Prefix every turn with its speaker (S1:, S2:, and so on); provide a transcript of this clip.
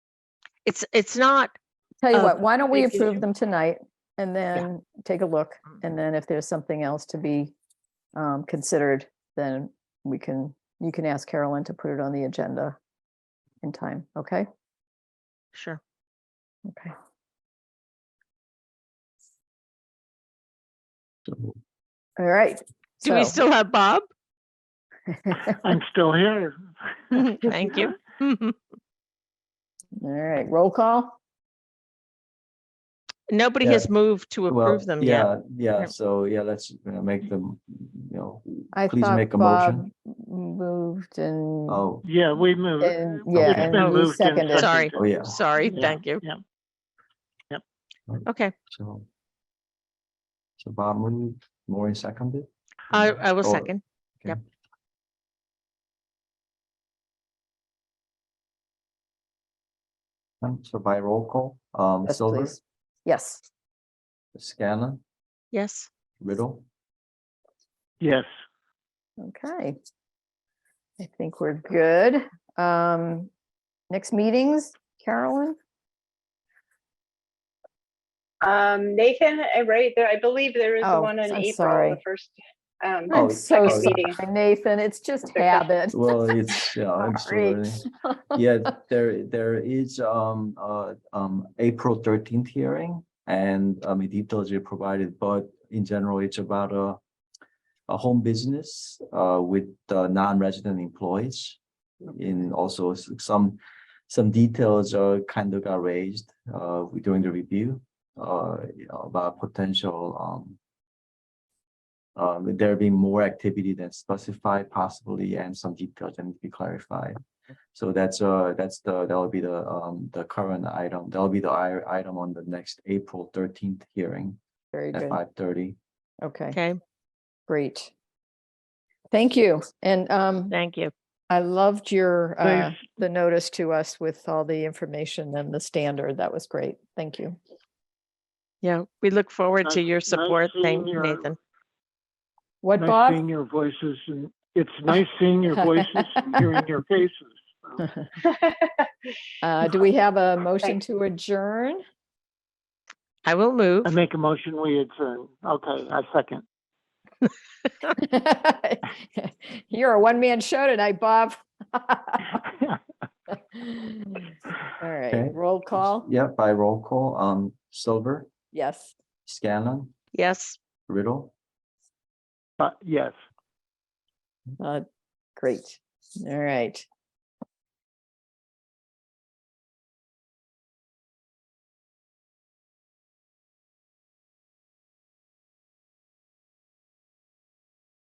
S1: It's, it's not,
S2: Tell you
S1: of
S2: what, why don't we
S1: the future.
S2: approve them tonight and then take a look? And then if there's something else to be um, considered, then we can, you can ask Carolyn to put it on the agenda in time, okay?
S1: sure.
S2: Okay.
S3: So
S2: All right.
S1: Do we
S2: so-
S1: still have Bob?
S3: I'm still here.
S1: Thank you.
S2: All right, roll call?
S1: Nobody
S4: Yeah.
S1: has moved to
S4: Well,
S1: approve them yet.
S4: yeah, yeah,
S1: Yep.
S4: so, yeah, let's you know, make them, you know,
S2: I
S4: Please
S2: thought
S4: make a
S2: Bob
S4: motion.
S2: Moved and,
S4: oh,
S3: Yeah, we moved.
S2: and,
S3: It's
S2: yeah, and
S3: been
S2: you
S3: moved and
S2: seconded.
S1: Sorry.
S4: oh, yeah,
S1: Sorry,
S3: Yeah,
S1: thank you.
S3: yeah. Yep.
S1: Okay,
S4: so. So Bob moved, Maureen seconded.
S1: I, I will
S4: Or-
S1: second. Yep.
S4: okay. Um, So by roll call, um,
S2: Yes,
S4: Silver,
S2: please. Yes,
S4: Scanlon,
S1: Yes,
S4: Riddle,
S3: Yes,
S2: okay. I think we're good. Um, next meetings, Carolyn?
S5: Um, Nathan, uh, right there, I believe there is
S2: Oh,
S5: the one in
S2: I'm
S5: April,
S2: sorry.
S5: the first. um,
S4: Oh,
S2: I'm so
S5: second
S2: sorry,
S5: meeting.
S2: Nathan. It's just
S5: Second.
S2: habit.
S4: well, it's, yeah,
S2: Sorry.
S4: absolutely. Yeah, there, there is, um, uh, um, April thirteenth hearing and, um, the details you provided, but in general, it's about a. A home business, uh, with, uh, non-resident employees. In also s- some, some details are kind of got raised, uh, during the review, uh, you know, about potential, um. Um, there being more activity than specified possibly and some details that need to be clarified. So that's, uh, that's the, that'll be the, um, the current item. That'll be the i- item on the next April thirteenth hearing
S2: Very
S4: at
S2: good.
S4: five thirty.
S2: Okay,
S1: okay,
S2: great. Thank you. And um,
S1: thank you.
S2: I loved your, uh,
S3: Thanks.
S2: the notice to us with all the information and the standard. That was great. Thank you.
S1: Yeah, we look forward to
S3: Nice-
S1: your
S3: nice
S1: support. Thank
S3: seeing your-
S1: Nathan.
S2: What,
S3: nice
S2: Bob?
S3: seeing your voices and it's nice seeing your voices and hearing your faces. So,
S2: Uh, Do we have a motion to adjourn?
S1: I will move.
S3: I make a motion, we adjourn. Okay, I second.
S2: You're a one-man show tonight, Bob. All
S4: Okay.
S2: right, roll call.
S4: Yeah, by roll call, um, Silver,
S2: Yes.
S4: Scanlon,
S1: Yes,
S4: Riddle,
S3: But yes.
S2: Uh, Great. All right.